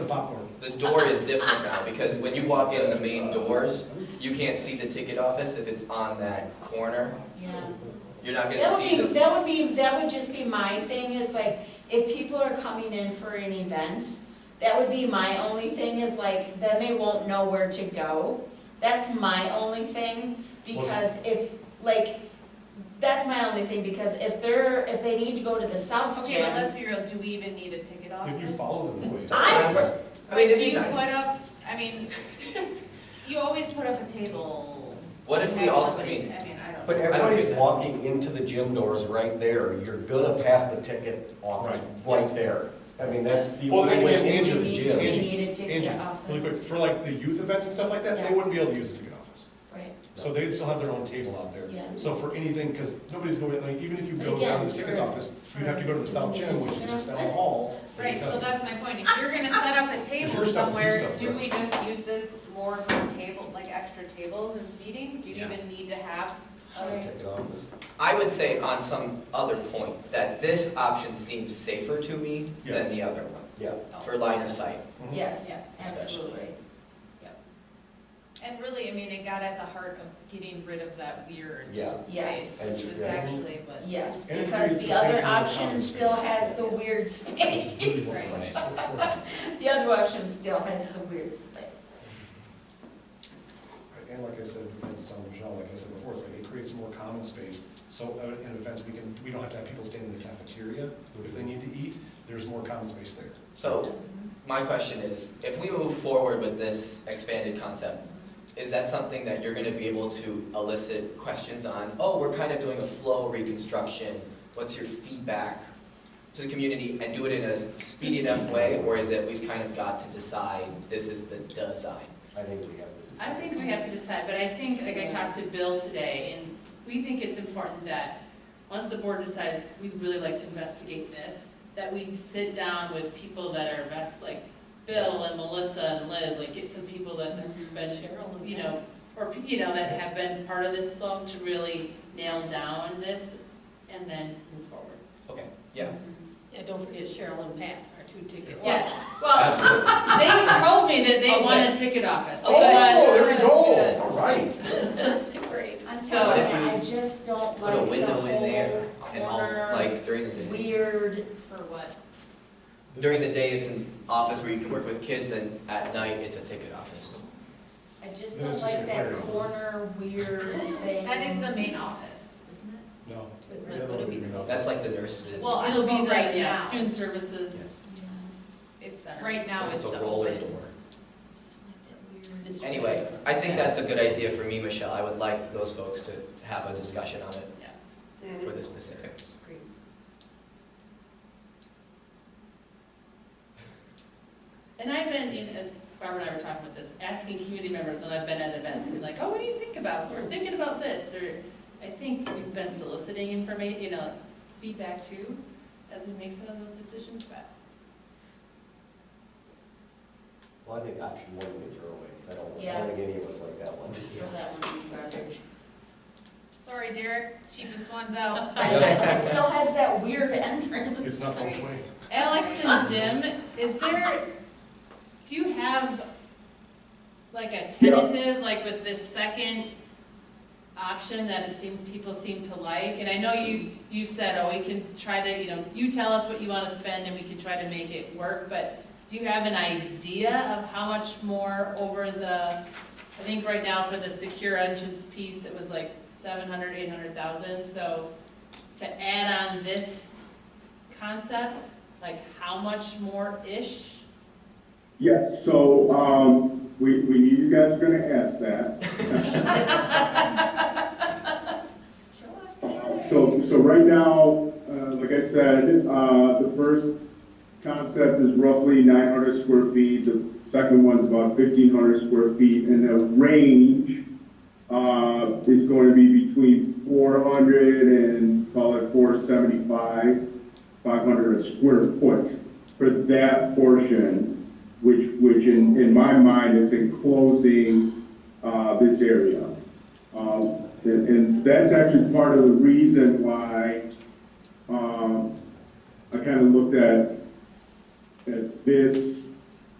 problem. The door is Uh-huh. different now, because when you walk in the main doors, you can't see the ticket office if it's on that corner. Yeah. You're not gonna That would see be, the, that would be, that would just be my thing is like, if people are coming in for an event, that would be my only thing is like, then they won't know where to go. That's my only thing, because if, like, that's my only thing, because if they're, if they need to go to the south Okay, but gym. let's be real, do we even need a ticket office? If you follow the rules. I'm for- I But mean, it'd do be you nice. put up, I mean, you always put up a table. what if we next to also, I somebody's- mean, I mean, I don't But know. everybody's walking into the gym doors right there, you're gonna pass the ticket office right there. I mean, that's the Well, only they- way into We the need- gym. We gym. need to take Angie, the office. really quick, for like the youth events and stuff like that, Yeah. they wouldn't be able to use the ticket office. Right, So they'd still have their own table out there. yeah. So for anything, because nobody's going, like, even if you go But again, down to the tickets for- office, you'd have to go to the south gym, which is just down the hall. Right, so that's my point, if you're gonna set up a table You're stuck- you're somewhere, stuck do there. we just use this more for table, like extra tables and seating? Do you Yeah. even need to have a Right. Ticket office. I would say on some other point, that this option seems safer to me than Yes. the other one, Yeah, for line of sight. Mhm. Yes, Yes. absolutely. And really, I mean, it got at the heart of getting rid of that weird Yeah. Yes. space, which is Yeah. actually what. Yes, And it because creates the the other same kind of option common still space. has the weird space. It's really what Right. it's for. The other option still has the weird space. And like I said, depends on Michelle, like I said before, it's like it creates more common space. So uh, in events, we can, we don't have to have people standing in the cafeteria if they need to eat. There's more common space there. So, my question is, if we move forward with this expanded concept, is that something that you're gonna be able to elicit questions on? Oh, we're kind of doing a flow reconstruction, what's your feedback to the community? And do it in a speedy enough way, or is it we've kind of got to decide, this is the design? I think we have I this. think we have to decide, but I think, like I talked to Bill today, and we think it's important that, once the board decides, we'd really like to investigate this, that we sit down with people that are best, like Bill and Melissa and Liz, like get some people that have Mhm. been, you know, or, pe- you know, that have been part of this flow to really nail down this and then move forward. Okay, yeah, Yeah, don't forget Cheryl and Pat, our two ticket. Yes, well, absolutely. they've told me that they want a ticket office. They want- Oh, there we Good. go, all right. Great. I'm So telling if you, you I just don't Put a like the window in there whole and all, corner, like during the day. weird. For what? During the day, it's an office where you can work with kids, and at night, it's a ticket office. I just Then don't it's just like a that weird- corner weird thing. That is the main office, isn't it? No. It's not the other gonna one be we the know. That's like the nurses. Well, I- It'll be the, Right yeah, now. student services. It's, uh, That's- right now it's It's the a roller open. door. Just don't like that weird- Anyway, I think that's a good idea for me, Michelle. I would like those folks to have a discussion on it for the specifics. And I've been, in- and Barbara and I were talking about this, asking community members, and I've been at events, and like, oh, what do you think about, we're thinking about this, or, I think we've been soliciting information, you know, feedback too, as we make some of those decisions, but. Well, I think option one we throw away, 'cause I don't, I Yeah. don't think any of us like that one. Well, that one would be garbage. Sorry, Derek, cheapest one's out. But it's- It still has that weird entrance. It's not feng shui. Alex and Jim, is there, do you have like a tentative, like with this second option that it seems people seem to like? And I know you, you've said, oh, we can try to, you know, you tell us what you want to spend and we can try to make it work, but do you have an idea of how much more over the, I think right now for the secure entrance piece, it was like seven hundred, eight hundred thousand, so to add on this concept? Like, how much more-ish? Yes, so, um, we, we knew you guys were gonna ask that. Show us the Uh, other. So, so right now, uh, like I said, uh, the first concept is roughly nine hundred square feet, the second one's about fifteen hundred square feet, and the range, uh, is going to be between four hundred and call it four seventy-five, five hundred a square foot for that portion, which, which in, in my mind is enclosing, uh, this area. Um, And and that's actually part of the reason why um, I kind of looked at, at this